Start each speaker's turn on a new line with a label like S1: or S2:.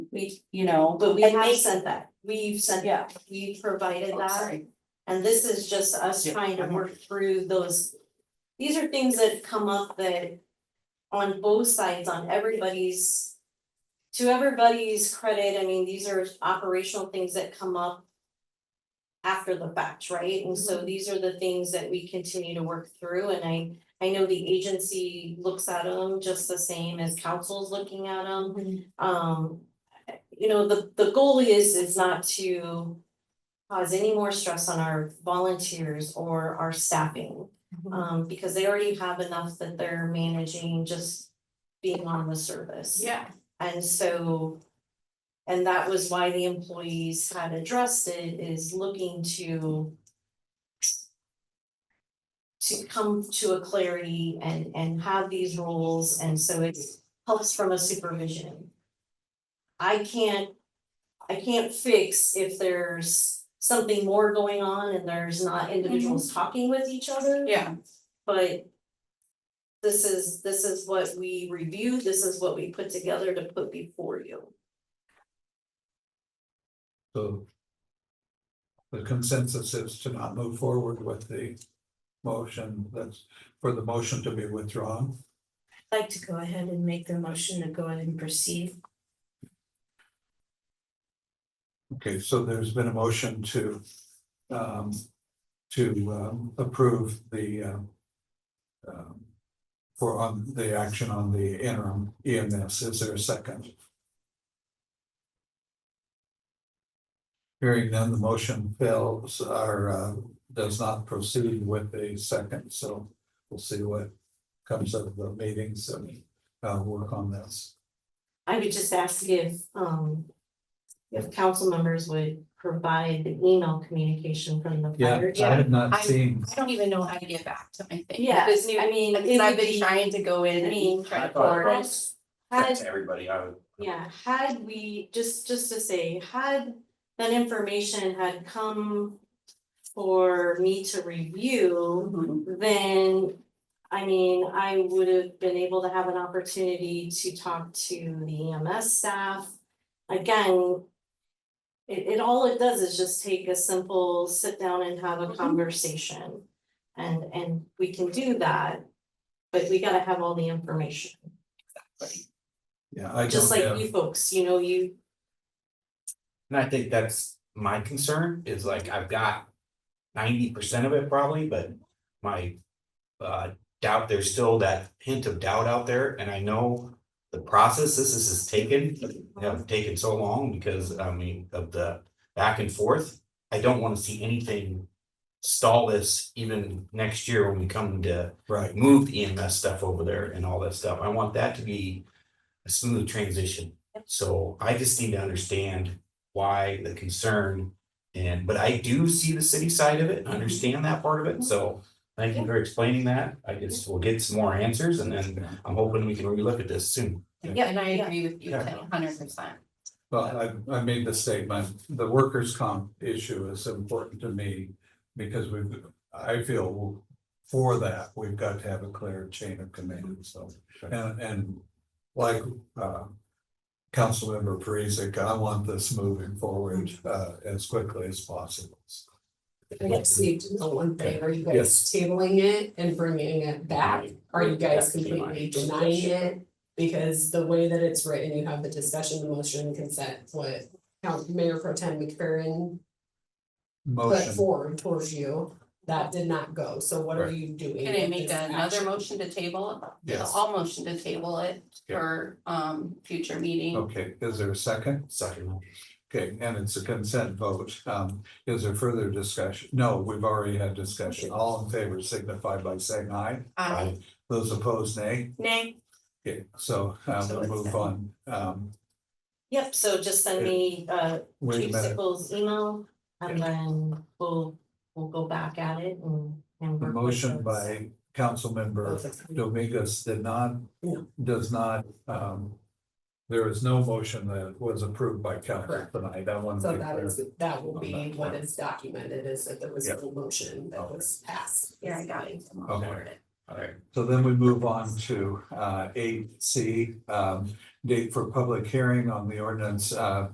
S1: We,
S2: you know,
S1: but we
S2: And
S1: have
S2: make-
S1: sent that, we've sent,
S2: yeah.
S1: we provided
S2: Oh,
S1: that,
S2: sorry.
S1: and this is just us
S2: Yeah,
S1: trying to
S2: I'm-
S1: work through those. These are things that come up that on both sides, on everybody's. To everybody's credit, I mean, these are operational things that come up. After the fact, right? And so these are the things that we continue to work through and I I know the agency looks at them just the same as council's looking at them. Um, you know, the, the goal is, is not to cause any more stress on our volunteers or our staffing.
S2: Mhm.
S1: Um, because they already have enough that they're managing just being on the service.
S2: Yeah.
S1: And so, and that was why the employees had addressed it, is looking to to come to a clarity and, and have these roles, and so it helps from a supervision. I can't, I can't fix if there's something more going on and there's not individuals talking with each other.
S2: Yeah,
S1: But this is, this is what we reviewed, this is what we put together to put before you.
S3: So. The consensus is to not move forward with the motion that's for the motion to be withdrawn.
S4: like to go ahead and make the motion to go ahead and proceed.
S3: Okay, so there's been a motion to um to um approve the um um, for on the action on the interim EMS. Is there a second? Hearing none, the motion fails or uh does not proceed with a second, so we'll see what comes of the meetings and uh work on this.
S1: I would just ask if, um, if council members would provide the email communication from the
S3: Yeah,
S1: fire.
S3: I have not
S4: I-
S3: seen.
S4: I don't even know how to get back to my thing.
S1: Yeah,
S4: This new,
S1: I mean,
S4: because
S1: it
S4: I've
S1: would
S4: been
S1: be-
S4: trying to go in
S1: I mean,
S4: and try to.
S5: I thought-
S4: forward it.
S1: Had,
S5: to everybody, I would.
S1: yeah, had we, just, just to say, had that information had come for me to review, then, I mean, I would have been able to have an opportunity to talk to the EMS staff. Again, it, it, all it does is just take a simple sit down and have a
S4: Mhm.
S1: conversation. And, and we can do that, but we gotta have all the information,
S3: Yeah, I
S1: just
S3: don't
S1: like
S3: have-
S1: you folks, you know, you,
S5: And I think that's my concern is like I've got ninety percent of it probably, but my uh doubt, there's still that hint of doubt out there and I know the process this is has taken, have taken so long because I mean of the back and forth. I don't want to see anything stall this even next year when we come to
S3: Right,
S5: move the EMS E stuff over there and all that stuff. I want that to be a smooth transition. So I just need to understand why the concern. And, but I do see the city side of
S6: Mm-hmm.
S5: it, understand that part of it. So thank you for explaining that. I guess we'll get some more answers and then I'm hoping we can relook at this soon.
S4: Yeah, and I
S1: Yeah.
S4: agree with you,
S3: Yeah.
S4: a hundred percent.
S3: Well, I, I made the statement, the workers' comp issue is important to me because we've, I feel for that, we've got to have a clear chain of command, so, and, and like, uh, Councilmember Parisic, I want this moving forward, uh, as quickly as possible.
S6: I guess we need to know one thing, are you guys
S3: Yes.
S6: tabling it and bringing it back? Are you guys completely denying it? Because the way that it's written, you have the discussion, the motion, consent, what Count Mayor Pro Tem McFerrin put
S3: Motion,
S6: forward towards you, that did not go, so what are
S3: Right.
S6: you doing?
S4: Can I
S6: with
S4: make
S6: this
S4: another
S6: action?
S4: motion to table? it?
S3: Yes.
S4: I'll motion to table it
S3: Okay.
S4: for um future meeting.
S3: okay, is there a second?
S5: Second.
S3: Okay, and it's a consent vote, um, is there further discussion? No, we've already had discussion, all in favor signify by saying aye.
S4: Aye.
S3: Those opposed, nay.
S4: Nay.
S3: Okay, so uh
S4: So
S3: we'll
S4: it's
S3: move
S4: done.
S3: on. Um,
S1: yep, so just send me, uh,
S3: wait
S1: Chief
S3: a minute,
S1: Sickles' email, and then we'll, we'll go back at it and, and
S3: the
S1: work with
S3: motion
S1: those.
S3: by Councilmember Dominguez did not,
S6: No.
S3: does not, um. There is no motion that was approved by council
S6: Correct.
S3: tonight. I want to
S6: So
S3: be
S6: that
S3: clear.
S6: is, that will be what is documented, is that there was no motion that was passed.
S4: Yeah, I got it.
S3: Okay. So then we move on to uh eight C, um date for public hearing on the ordinance, uh,